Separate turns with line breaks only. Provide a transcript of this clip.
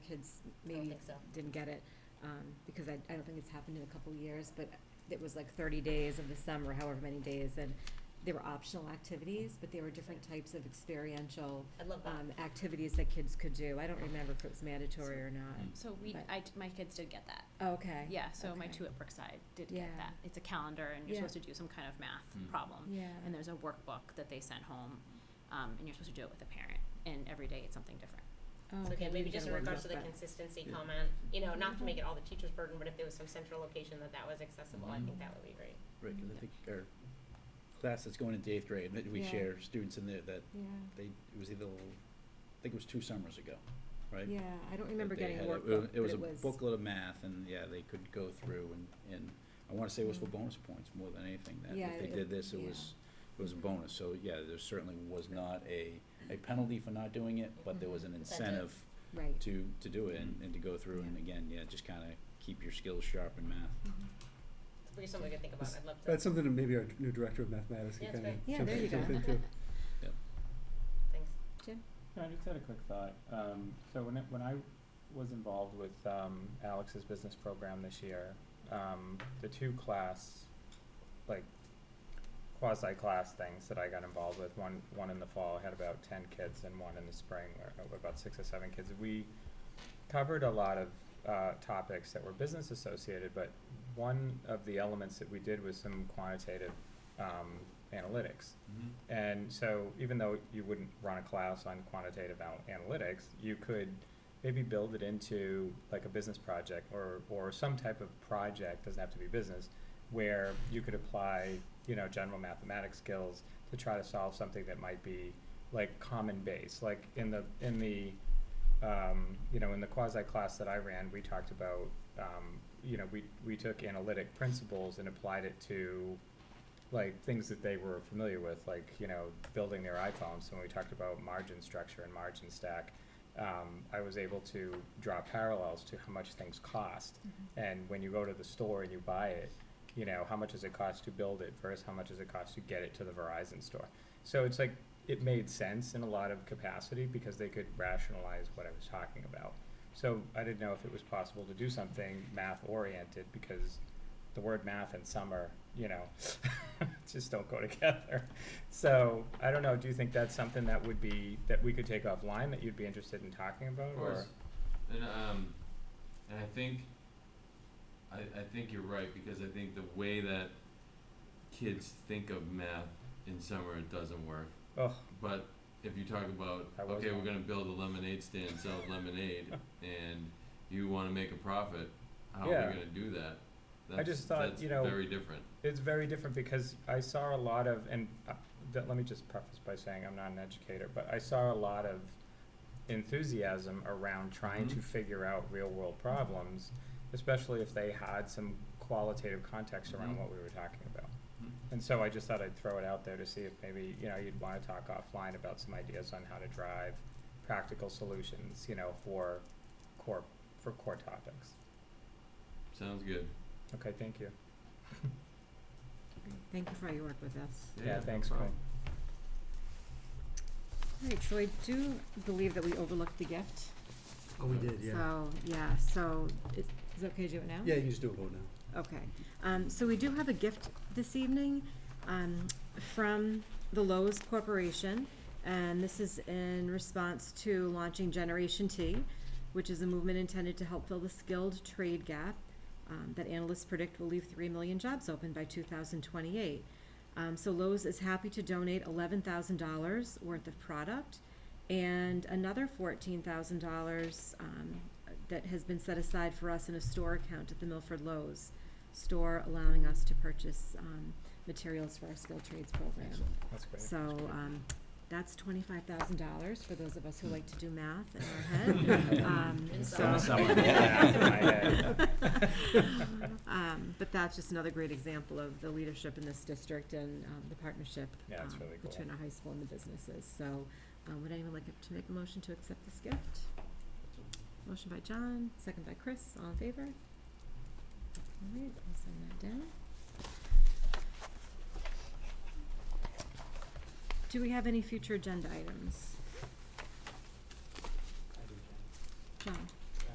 kids
I don't
maybe
think so.
didn't get it, um, because I, I don't think it's happened in a couple years, but it was like thirty days of the summer, however many days, and there were optional activities, but there were different types of experiential,
I love that.
um, activities that kids could do. I don't remember if it was mandatory or not.
Mm.
So we,
But-
I, t- my kids did get that.
Okay.
Yeah, so my
okay.
two at Brookside did
Yeah.
get that. It's a calendar and you're
Yeah.
supposed to do some kind of math
Mm.
problem.
Yeah.
And there's a workbook that they sent home, um, and you're supposed to do it with a parent, and every day it's something different.
Oh,
So
okay, we
again, maybe
didn't
just
get
in
a
regards to
workbook,
the
but-
consistency
Yeah.
comment, you know, not to make it all the teacher's burden, but if there was some central location that that was accessible,
Mm-hmm.
I think
Mhm.
that would be great.
Right, 'cause I
Yeah.
think our class that's going into eighth grade, that we
Yeah.
share students in there that
Yeah,
they, it was either, I think it was two summers ago, right?
yeah, I don't
That
remember
they
getting a
had
workbook, but it was.
It was a booklet of math and, yeah, they could go through and, and I wanna say it was for
Mhm.
bonus points more than anything. That
Yeah,
if they
it-
did this, it
yeah.
was, it was a bonus. So, yeah, there certainly was not a, a penalty for not doing it, but there was an
Incentive.
incentive
Right.
to, to do it and, and to go through and
Mm-hmm. Yeah.
again, yeah, just kinda keep your skills sharp in math.
It's pretty something we could think about. I'd love to.
That's something that maybe our new director of mathematics
Yeah,
can
that's
kind of
great.
Yeah,
jump,
there you
jump
go.
into.
Thanks.
Jim?
No, I just had a quick thought. Um, so when it, when I was involved with um, Alex's business program this year, um, the two class, like quasi class things that I got involved with one one in the fall I had about ten kids and one in the spring or or about six or seven kids. We covered a lot of uh, topics that were business associated, but one of the elements that we did was some quantitative um, analytics.
Mm-hmm,
And so even though you wouldn't run a class on quantitative al- analytics, you could maybe build it into like a business project or, or some type of project, doesn't have to be business, where you could apply, you know, general mathematics skills to try to solve something that might be like common base. Like in the, in the, um, you know, in the quasi class that I ran, we talked about, um, you know, we, we took analytic principles and applied it to like things that they were familiar with, like you know building their iPhones. So when we talked about margin structure and margin stack, um, I was able to draw parallels to how much things cost. And when you go to the store and you buy it, you know how much does it cost to build it versus how much does it cost to get it to the Verizon store. So it's like it made sense in a lot of capacity because they could rationalize what I was talking about. So I didn't know if it was possible to do something math oriented because the word math and summer, you know, just don't go together. So I don't know. Do you think that's something that would be that we could take offline that you'd be interested in talking about?
Of course.
Or
And um, and I think, I, I think you're right because I think the way that kids think of math in summer it doesn't work.
oh,
But if you talk about
I was
okay,
wrong.
we're going to build a lemonade stand, sell lemonade, and you want to make a profit, how are
Yeah.
we going to do that? That's,
just thought,
that's
you know-
very different.
it's very different because I saw a lot of and uh, th- let me just preface by saying I'm not an educator, but I saw a lot of enthusiasm around trying to
Mhm.
figure out real world problems, especially if they had some qualitative context around
Mhm.
what we were talking about.
Mhm.
And so I just thought I'd throw it out there to see if maybe, you know, you'd want to talk offline about some ideas on how to drive practical solutions, you know, for core, for core topics.
Sounds good.
Okay, thank you.
Thank you for all your work with us.
Yeah,
Yeah,
no
thanks,
problem.
Quinn.
Right, so I do believe that we overlooked the gift.
Oh, we did, yeah.
So, yeah, so is is it okay to do it now?
Yeah, you just do a vote now.
Okay. Um, So we do have a gift this evening um, from the Lowe's Corporation, and this is in response to launching Generation T, which is a movement intended to help fill the skilled trade gap um, that analysts predict will leave 3 million jobs open by 2028. Um, So Lowe's is happy to donate $11,000 worth of product and another $14,000 um, that has been set aside for us in a store account at the Milford Lowe's store, allowing us to purchase um, materials for our skilled trades program.
Excellent.
That's great.
So um, that's $25,000 for those of us who like to do math in our head.
Uh,
Um,
And
so-
summer.
Summer,
yeah.
Um, But that's just another great example of the leadership in this district and um, the partnership
Yeah, it's
um,
really cool.
between our high school and the businesses. So um, would anyone like to make a motion to accept this gift? Motion by John, second by Chris, all in favor? All right, I'll send that down. Do we have any future agenda items?